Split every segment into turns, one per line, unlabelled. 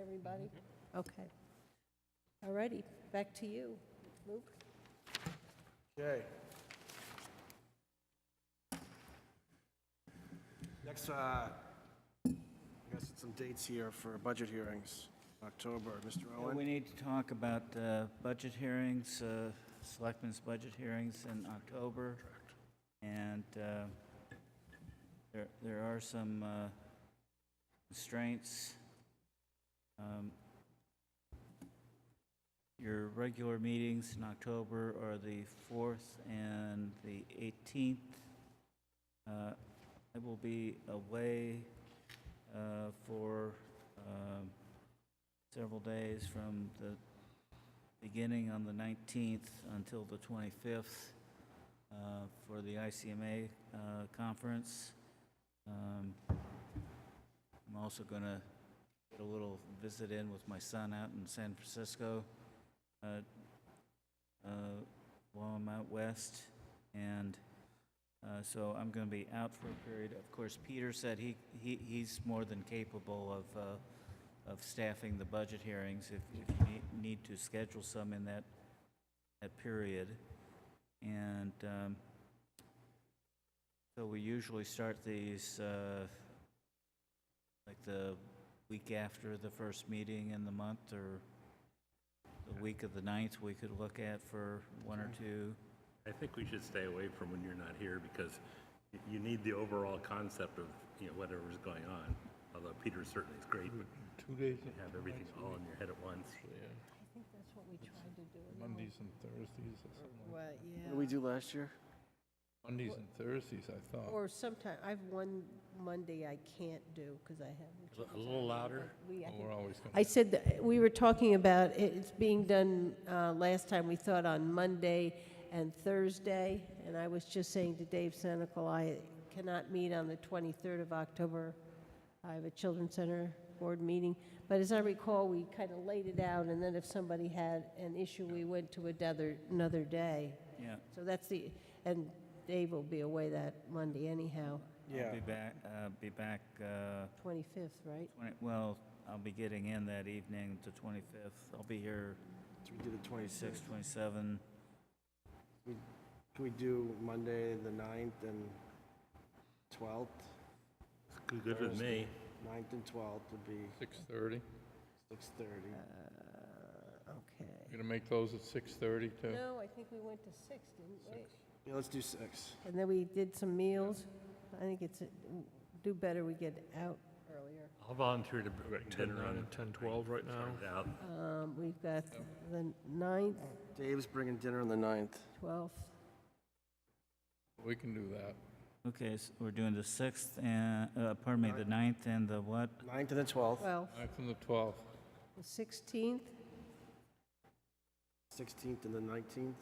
everybody? Okay. All righty, back to you, Luke.
Okay. Next, uh, I guess it's some dates here for budget hearings, October. Mr.
Yeah, We
Owen?
need to talk about uh, budget hearings, uh, selectmen's budget hearings in October. And uh, there there are some uh, constraints. Um, Your regular meetings in October are the 4th and the 18th. Uh, I will be away uh, for um, several days from the beginning on the 19th until the 25th uh, for the ICMA uh, conference. Um, I'm also going to get a little visit in with my son out in San Francisco uh, uh, while I'm out west. And uh, so I'm going to be out for a period. Of course, Peter said he, he he's more than capable of uh, of staffing the budget hearings if if you need- need to schedule some in that, that period. And um, so we usually start these, uh, like the week after the first meeting in the month or the week of the ninth, we could look at for one or two.
I think we should stay away from when you're not here because y- you need the overall concept of, you know, whatever's going on. Although Peter certainly is great, but
Two days,
you have everything all in your head at once.
I think that's what we tried to do. no?
Mondays and Thursdays or something like
What,
What
yeah.
did we do last year?
Mondays and Thursdays, I thought.
Or sometime, I have one Monday I can't do because I have.
A little louder.
We, I
Well,
think,
We're always going
I
to,
said, that- we were talking about it- it's being done, uh, last time, we thought on Monday and Thursday, and I was just saying to Dave Senical, I cannot meet on the 23rd of October. I have a Children's Center Board meeting, but as I recall, we kind of laid it out, and then if somebody had an issue, we went to another, another day.
Yeah,
So that's the, and Dave will be away that Monday anyhow,
I'll be back, uh, be back, uh,
25th, right?
20 well, I'll be getting in that evening, the 25th. I'll be here
So we did the
26,
26th.
27.
Can we do Monday, the 9th and 12th?
It's good- good with me.
9th and 12th would be
6:30.
6:30.
Uh, Okay.
You're going to make those at 6:30 too?
No, I think we went to 6, didn't we?
Six.
Yeah, let's do 6.
And then we did some meals. I think it's, do better we get out earlier.
I'll volunteer to br- dinner on. Ten, twelve right now. Out.
Um, We've got the 9th,
Dave's bringing dinner on the 9th.
12th,
We can do that.
Okay, so we're doing the 6th and, uh, pardon me, the ninth and the what?
9th and the 12th,
12th,
9th and the 12th.
the 16th.
16th and the 19th.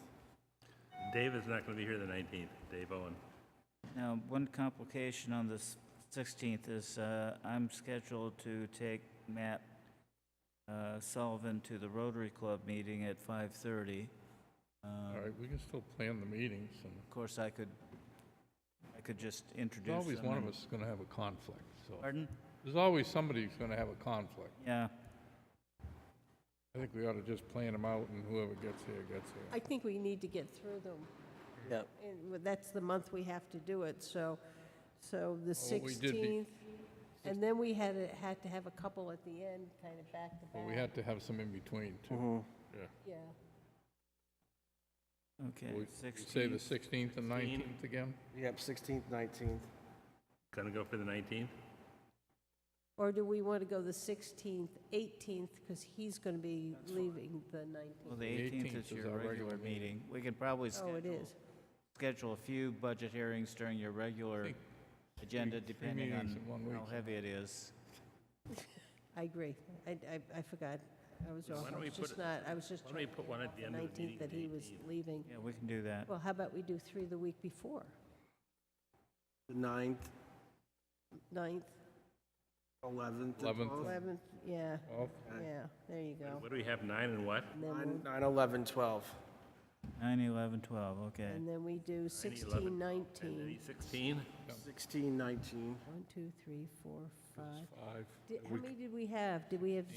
Dave is not going to be here the 19th, Dave Owen.
Now, one complication on this 16th is uh, I'm scheduled to take Matt uh, Sullivan to the Rotary Club meeting at 5:30. Um,
All right, we can still plan the meetings. and
Of course, I could, I could just introduce
There's
them.
always one of
and-
us is going to have a conflict, so.
Pardon?
There's always somebody who's going to have a conflict.
Yeah,
I think we ought to just plan them out and whoever gets here, gets
I
here.
think we need to get through them.
Yeah.
And w- that's the month we have to do it, so, so the
Well, we did be-
16th. And then we had, a- had to have a couple at the end, kind of back to back.
But we had to have some in between too.
Mhm.
Yeah.
okay.
We- we Say the
16th.
16th and 19th again?
Yep, 16th, 19th.
Going to go for the 19th?
Or do we want to go the 16th, 18th, because he's going to be leaving the
Well,
19th?
the
The
18th
18th
is
is
your
our
regular
regular meeting.
meeting. We could probably
Oh, it
schedule,
is.
schedule a few budget hearings during your regular
Think
agenda,
three
depending
meetings
on
in one
how
week.
heavy it is.
I agree. I, I, I forgot. I was off.
don't
I
we
was
put
just
it-
not, I was just
Why don't we
trying to
put one at the
the
end of the
19th
meeting?
that he was leaving.
Yeah, we can do that.
Well, how about we do three the week before?
The 9th,
9th,
11th, and
11th.
12th.
11th, yeah,
Well,
Okay.
yeah, there you go.
What do we have, nine and what?
And then,
Nine,
we'll-
nine, 11, 12.
9, 11, 12, okay.
and then we do 16, 19.
16?
16, 19.
One, two, three, four, five.
five.
Did- How
We
many did we have? Did we have